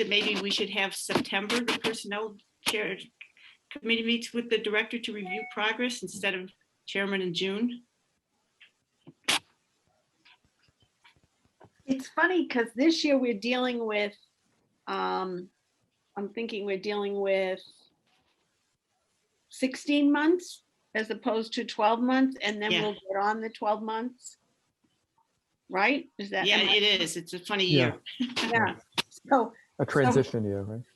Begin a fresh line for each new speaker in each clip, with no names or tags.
that maybe we should have September, the personnel chair committee meets with the director to review progress instead of chairman in June.
It's funny because this year we're dealing with, um, I'm thinking we're dealing with sixteen months as opposed to twelve months, and then
Yeah.
we'll get on the twelve months. Right? Is that?
Yeah,
am I-
it is. It's a funny
Yeah.
year.
Yeah. So,
A transition year, right?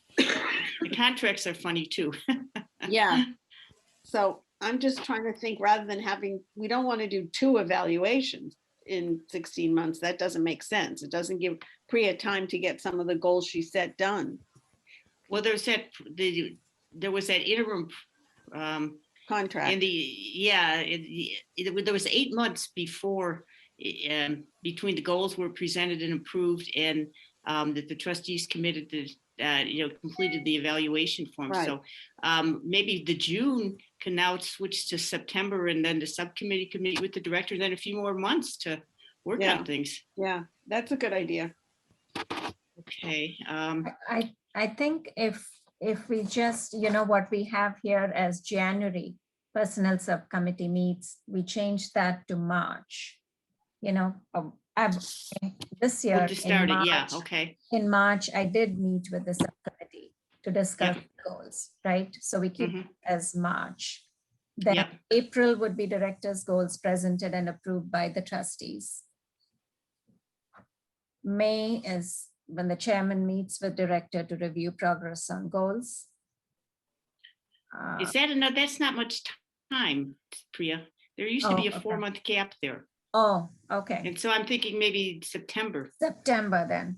The contracts are funny too.
yeah. So I'm just trying to think, rather than having, we don't want to do two evaluations in sixteen months. That doesn't make sense. It doesn't give Priya time to get some of the goals she set done.
Well, there's that, the, there was that interim, um, in
Contract,
the, yeah, it, it, there was eight months before, eh, um, between the goals were presented and approved and, um, that the trustees committed to, uh, you know, completed the evaluation form.
Right.
So, um, maybe the June can now switch to September and then the subcommittee can meet with the director, and then a few more months to work
Yeah.
on things.
yeah, that's a good idea.
Okay, um,
I, I think if, if we just, you know, what we have here as January Personnel Subcommittee meets, we change that to March. You know, um, I've- this year.
we'll just
in
start it, yeah,
March-
okay,
In March, I did meet with the subcommittee to discuss goals, right? So we keep
Mhm.
as March. Then
Yeah.
April would be director's goals presented and approved by the trustees. May is when the chairman meets with director to review progress on goals. Uh,
Is that another, that's not much t- time, Priya. There used to
Oh,
be a
okay.
four-month gap there.
Oh, okay,
And so I'm thinking maybe September
September then.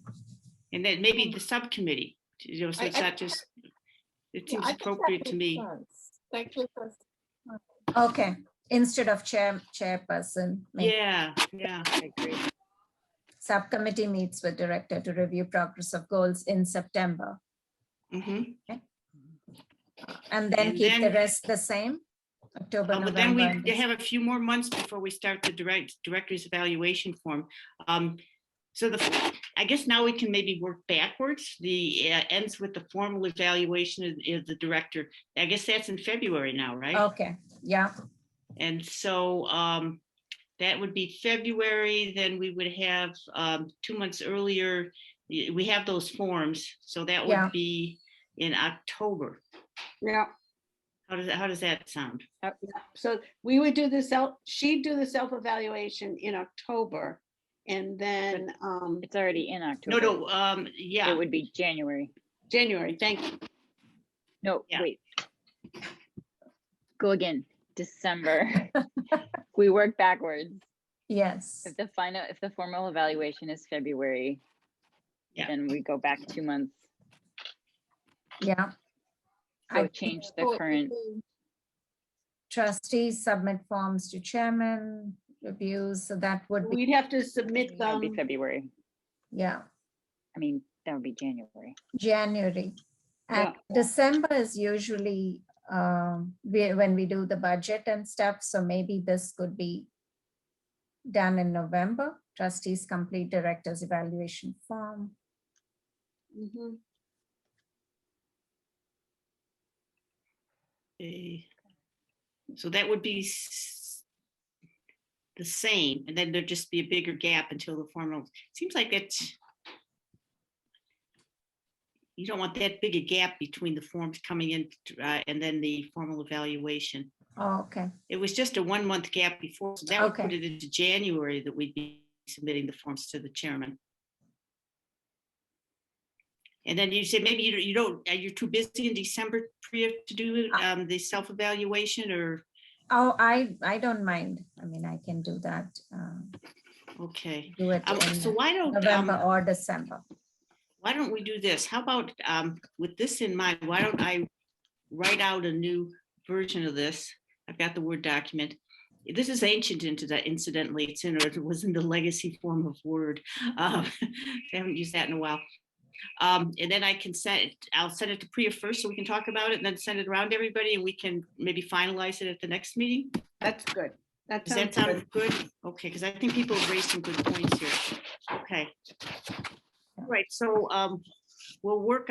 and then maybe the subcommittee, you know, so
I-
it's
I-
not just, it
Yeah,
seems
I think that
appropriate to
makes
me.
sense. That gives us,
Okay, instead of chair, chairperson. maybe
Yeah, yeah,
Subcommittee meets with director to review progress of goals in September
hmm
and then
And
keep the
then- Oh,
rest the same. October,
Um, But then
November. and
we
Dec-
have a few more months before we start the direct, director's evaluation form. Um, so the, I guess now we can maybe work backwards. The, uh, ends with the formal evaluation of, of the director. I guess that's in February now, right?
Okay, yeah,
And so um, that would be February, then we would have um, two months earlier, y- we have those forms, so that
Yeah.
would be in October.
Yeah.
How does, how does that sound?
Uh, yeah. So we would do the self, she'd do the self-evaluation in October and then, um,
It's already in
No,
October.
no, um,
It
yeah,
would be January.
January, thank you.
No,
Yeah.
wait. Go again, December. We work backwards.
yes,
If the final, if the formal evaluation is February,
Yeah.
then we go back two months.
yeah.
So
I
change
oh,
the
it
current,
would
trustees submit forms to chairman, reviews, so that would be,
We'd have to submit
that would be
them,
February.
yeah,
I mean, that would be January.
January. And December is usually, um, we, when we do the budget and stuff, so maybe this could be done in November, trustees complete director's evaluation form.
Mhm.
eh, so that would be s- the same, and then there'd just be a bigger gap until the formal, seems like it's you don't want that big a gap between the forms coming in uh, and then the formal evaluation.
Oh, Okay,
It was just a one month gap before, so that would put
Okay.
it into January that we'd be submitting the forms to the chairman. And then you said maybe you, you don't, uh, you're too busy in December, Priya, to do
Uh,
um, the self-evaluation or,
oh, I, I don't mind, I mean, I can do that, um,
okay.
do it
Um, So
in
why don't,
November
um,
or December.
why don't we do this? How about, um, with this in mind, why don't I write out a new version of this? I've got the Word document. This is ancient into that incidentally, it's in, or it was in the legacy form of Word. Um, I haven't used that in a while. Um, and then I can send, it- I'll send it to Priya first so we can talk about it and then send it around to everybody and we can maybe finalize it at the next meeting.
that's good. That
Does that
sounds
sound
good.
good? Okay, because I think people have raised some good points here. Okay. All right, so um, we'll work